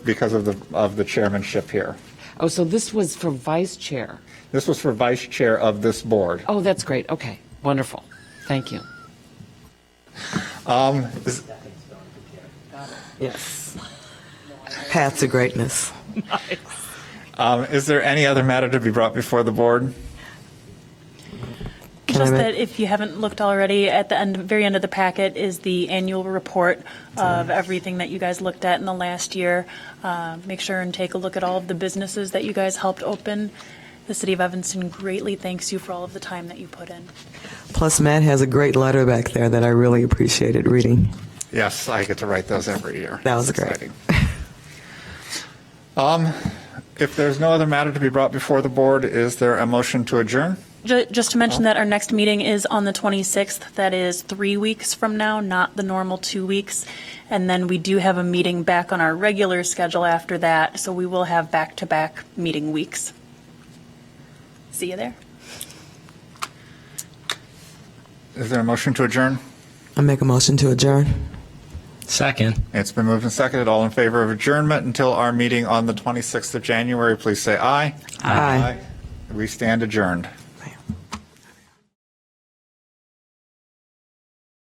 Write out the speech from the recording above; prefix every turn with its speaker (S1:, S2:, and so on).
S1: because of the, of the chairmanship here.
S2: Oh, so this was for vice chair.
S1: This was for vice chair of this board.
S2: Oh, that's great. Okay, wonderful. Thank you.
S1: Is-
S3: Yes. Paths of greatness.
S1: um, Is there any other matter to be brought before the board?
S3: I
S4: Just
S3: make-
S4: that if you haven't looked already, at the end, very end of the packet is the annual report of everything that you guys looked at in the last year. Uh, Make sure and take a look at all of the businesses that you guys helped open. The city of Evanston greatly thanks you for all of the time that you put in.
S3: Plus, Matt has a great letter back there that I really appreciated reading.
S1: Yes, I get to write those every year.
S3: That was
S1: It's
S3: great.
S1: exciting. Um, If there's no other matter to be brought before the board, is there a motion to adjourn?
S4: Ju- Just to mention that our next meeting is on the 26th. That is three weeks from now, not the normal two weeks. And then we do have a meeting back on our regular schedule after that, so we will have back-to-back meeting weeks. See you there.
S1: Is there a motion to adjourn?
S3: I make a motion to adjourn.
S5: Second.
S1: It's been moved and seconded. All in favor of adjournment until our meeting on the 26th of January, please say aye.
S3: Aye.
S1: We stand adjourned.